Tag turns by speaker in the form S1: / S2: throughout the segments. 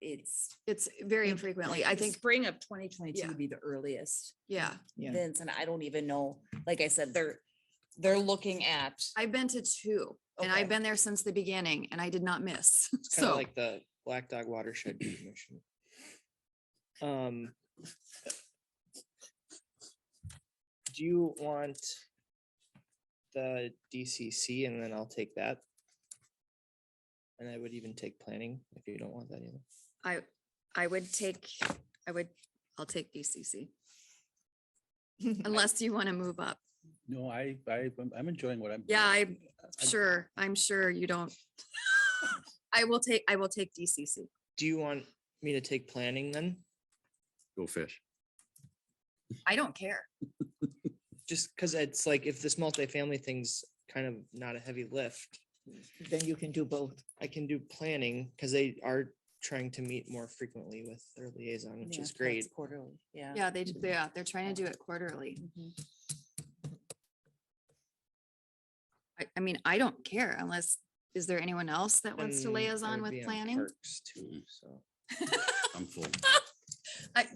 S1: it's
S2: It's very
S1: Like,
S2: infrequently, I
S1: the
S2: think,
S1: spring of twenty
S2: Yeah.
S1: twenty-two would be the earliest.
S2: yeah.
S3: Yeah.
S1: Vince, and I don't even know, like I said, they're, they're looking at,
S2: I've been to two and
S1: Okay.
S2: I've been there since the beginning and I did not miss.
S3: It's kind of
S2: So
S3: like the Black Dog Watershed Commission. Um. Do you want the DCC and then I'll take that? And I would even take planning if you don't want that either.
S2: I, I would take, I would, I'll take BCC. Unless you want to move up.
S4: No, I, I, I'm- I'm enjoying what I'm.
S2: Yeah,
S4: doing.
S2: I'm Sure, I'm sure you don't. I will take, I will take DCC.
S3: Do you want me to take planning then?
S5: Go fish.
S2: I don't care.
S3: Just because it's like if this multifamily thing's kind of not a heavy lift,
S6: Then you can do both.
S3: I can do planning because they are trying to meet more frequently with their liaison, which
S1: Yeah,
S3: is
S1: twice
S3: great.
S1: Quarterly, yeah.
S2: Yeah, they, d- yeah, they're trying to do it quarterly.
S1: Mhm.
S2: I, I mean, I don't care unless, is there anyone else that wants to
S3: and I
S2: liaison
S3: Mm,
S2: with
S3: would be on
S2: planning?
S3: parks too, so.
S5: I'm full.
S4: I've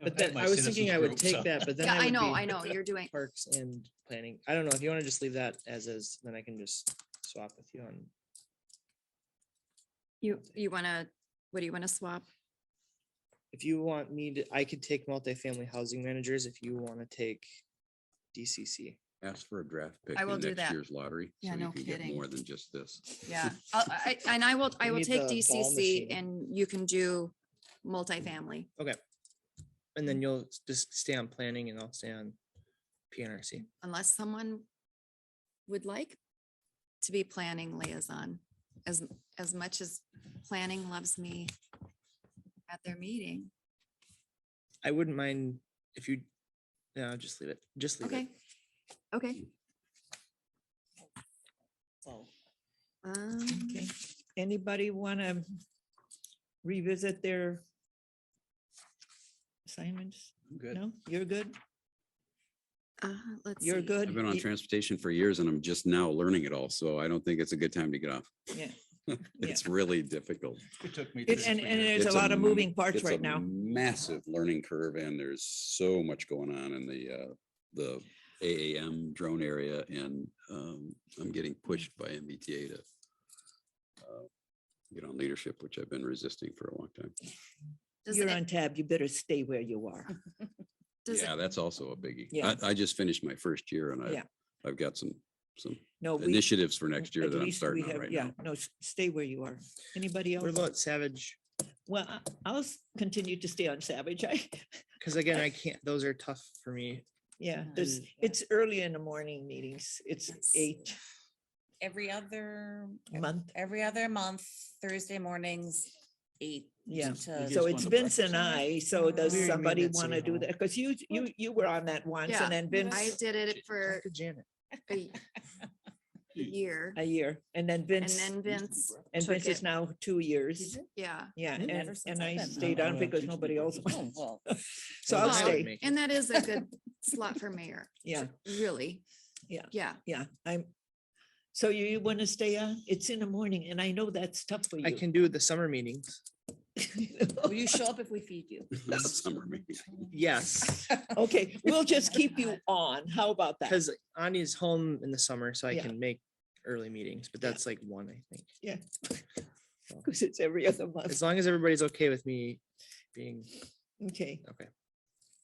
S3: But
S4: had
S3: then
S4: my
S3: I was
S4: citizens
S3: thinking I would
S4: group,
S3: take
S4: so-
S3: that, but then.
S2: Yeah, I
S3: would
S2: know,
S3: be
S2: I know, you're doing,
S3: Parks and planning. I don't know. If you want to just leave that as is, then I can just swap with you on.
S2: you, you want to, what do you want to swap?
S3: If you want me to, I could take multifamily housing managers if you want to take DCC.
S5: Ask for a draft pick
S2: I will
S5: in
S2: do
S5: next
S2: that.
S5: year's lottery.
S2: Yeah,
S5: so you
S2: no
S5: can get
S2: kidding.
S5: More than just this.
S2: Yeah, I'll- I, and I will, I
S3: We
S2: will
S3: need
S2: take
S3: the ball
S2: DCC
S3: machine.
S2: and you can do multifamily.
S3: And
S2: Mm.
S3: then you'll s- just stay on planning and I'll stay on PNRC.
S2: unless someone would like to be planning liaison, as, as much as planning loves me at their meeting.
S3: I wouldn't mind if you, no, just leave it, just leave it.
S2: Okay, okay.
S1: So,
S2: Um,
S6: Okay. Anybody want to revisit their assignments?
S4: I'm Good.
S6: No, you're good.
S2: uh, Let's
S6: You're
S2: see.
S6: good.
S5: I've been on
S6: You-
S5: transportation for years and I'm just now learning it all. So I don't think it's a good time to get off.
S6: Yeah.
S5: It's really difficult.
S4: It took me.
S6: It-
S4: three
S6: and-
S4: different
S6: and
S4: years.
S6: There's a lot of
S5: m-
S6: moving parts
S5: it's a
S6: right now.
S5: Massive learning curve and there's so much going on in the, uh, the AAM drone area and, um, I'm getting pushed by MBTA to uh, get on leadership, which I've been resisting for a long time.
S2: Does
S6: You're
S2: it-
S6: on tab. You better stay where you are.
S2: does it-
S5: Yeah, that's also a biggie.
S6: Yeah.
S5: I, I just finished my first year and I,
S6: Yeah.
S5: I've got some, some
S6: No, we.
S5: initiatives for next year
S6: at
S5: that I'm
S6: least
S5: starting
S6: we
S5: on
S6: have-
S5: right
S6: yeah,
S5: now.
S6: No, s- stay where you are. Anybody
S3: What
S6: else?
S3: about Savage?
S6: Well, I- I'll s- continue to stay on Savage. I,
S3: Because again, I can't, those are tough for me.
S6: yeah, there's,
S1: Mm.
S6: it's early in the morning meetings. It's
S1: Yes.
S6: eight
S1: Every other,
S6: month.
S1: every other month, Thursday mornings, eight.
S6: Yeah.
S1: to-
S4: Just
S6: So
S4: one
S6: it's
S4: of
S6: Vince and
S1: us.
S6: I.
S2: Oh,
S6: So does
S1: We're
S3: in
S6: somebody
S3: minutes
S6: want to
S3: anyhow.
S6: do that? Because you, you, you were on that once
S2: Yeah,
S6: and then
S2: I
S6: Vince
S2: did it for
S3: Talk to Janet.
S2: a y- a year
S6: a year and then
S2: and
S6: Vince,
S2: then Vince,
S6: and
S2: took
S6: Vince is
S2: it.
S6: now two years.
S2: yeah.
S6: Yeah,
S1: I've never
S6: and,
S1: since
S6: and
S1: I've
S6: I
S1: been on.
S6: stayed on
S4: Well,
S6: because
S4: teach me
S6: nobody else
S4: business.
S6: wants.
S1: Oh, well,
S6: So
S3: Well,
S6: I'll
S2: Wow.
S3: I would
S6: stay.
S3: make it.
S2: And that is a good slot for mayor,
S6: Yeah,
S2: really.
S6: Yeah.
S2: Yeah,
S6: yeah, I'm. So you, you want to stay on? It's in the morning and I know that's tough for you.
S3: I can do the summer meetings.
S1: Will you show up if we feed you?
S5: Summer meeting.
S3: Yes,
S6: Okay, we'll just keep you on. How about that?
S3: because Anya's home in the summer, so I
S6: Yeah.
S3: can make early meetings, but
S6: Yeah.
S3: that's like one, I think.
S6: Because it's every other
S3: As
S6: month.
S3: long as everybody's okay with me being,
S6: Okay,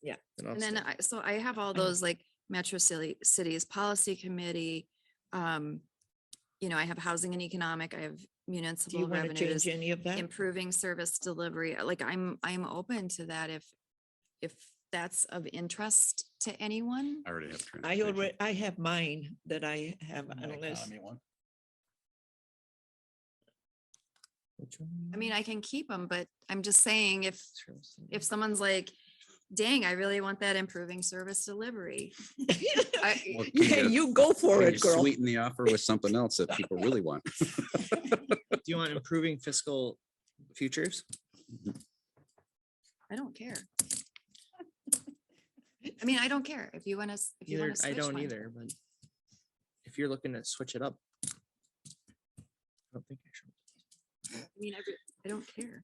S3: then I'll
S2: And then
S3: stay.
S2: I, so I have all those like Metro City Cities Policy Committee. Um, you know, I have housing and economic, I have
S6: do you
S2: municipal
S6: want to
S2: revenues,
S6: change any of that?
S2: improving service delivery. uh, Like I'm, I'm open to that if, if that's of interest to anyone.
S5: I already have.
S6: I
S5: transportation.
S6: already, I have mine that I have
S4: My
S6: unless.
S4: economy one.
S2: I mean, I can keep them, but I'm just saying if, if
S3: If
S2: someone's like, dang, I really want that improving service delivery. I-
S5: Well,
S6: Yeah,
S5: can
S6: you go for
S5: can
S6: it,
S5: you
S6: girl.
S5: Sweeten the offer with something else that people really want.
S3: do you want improving fiscal futures?
S2: I don't care. I mean, I don't care if you want to, if you
S3: Either,
S2: want to.
S3: I don't either, but if you're looking to switch it up. I don't think I should.
S2: I mean, I, re- I don't care.